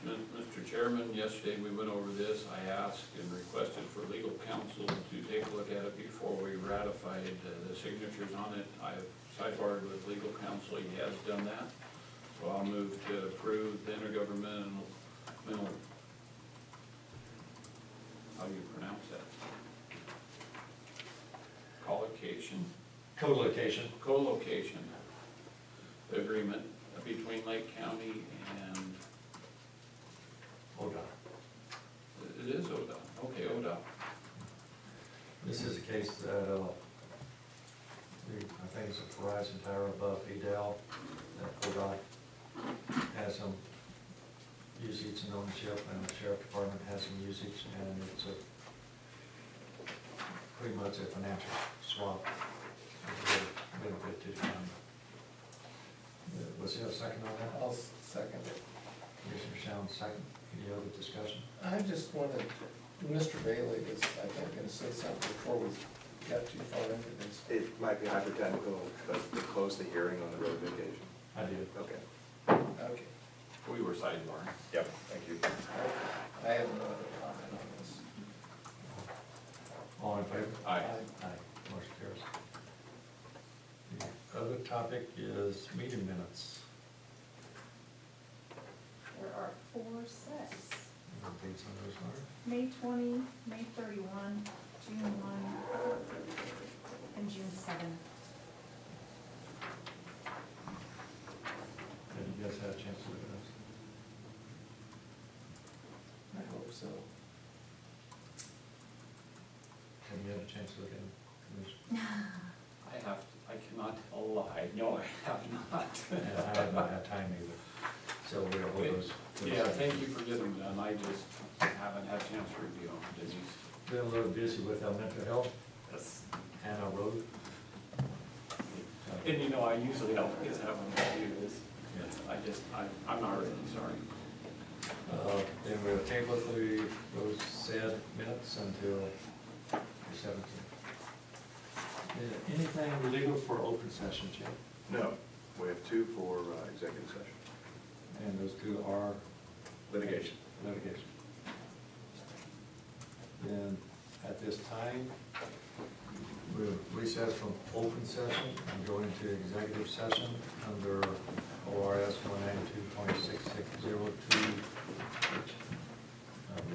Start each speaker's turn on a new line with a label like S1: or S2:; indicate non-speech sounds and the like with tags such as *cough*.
S1: Chairman, yesterday we went over this. I asked and requested for legal counsel to take a look at it before we ratified uh, the signatures on it. I've sidebarred with legal counsel, he has done that. So I'll move to approve the intergovernmental, mental- how do you pronounce that? Collocation?
S2: Co-location.
S1: co-location agreement between Lake County and,
S2: Hold on.
S1: it is ODOT, okay, ODOT.
S2: This is a case that, uh, the- I think it's a Verizon tower above Edel, that ODOT has some usage and ownership, and the sheriff department has some usage, and it's a, pretty much a financial swap. of the Benefit to the county. Uh, Was there a second on that?
S3: I'll second it.
S2: Commissioner Shall's second. Any other discussion?
S3: I just wanted, Mr. Bailey was, I think, gonna say something before we got too far into this.
S4: It might be hypothetical, but to close the hearing on the road mitigation.
S2: I did.
S4: Okay.
S3: Okay.
S1: We were sidebarred.
S4: Yep, thank you.
S3: I have no other comment on this.
S2: All in favor?
S1: Aye.
S2: Aye, motion carries. The other topic is meeting minutes.
S5: There are four sets,
S2: You want these on those, Laura?
S5: May twenty, May thirty-one, June one, and June seven.
S2: Have you guys had a chance to look at those?
S3: I hope so.
S2: Have you had a chance to look at them? Commissioner?
S1: I have, I cannot tell a lie, no, I have
S2: And I
S1: not.
S2: haven't had time either, so we'll hold those. for the
S1: *laughs* Yeah,
S2: second.
S1: thank you for getting them done, I just haven't had a chance to review them, Denise.
S2: Been a little busy with our mental health and our road.
S1: And you know, I usually always have them review this, I just, I, I'm not ready, sorry.
S2: Uh, Then we'll table the those said minutes until the seventeenth. Anything legal for open session, Jim?
S4: No, we have two for uh, executive session.
S2: And those two are?
S4: Litigation.
S2: Litigation. Then, at this time, we'll recess from open session and go into executive session under ORS one ninety-two point six six zero two Uh,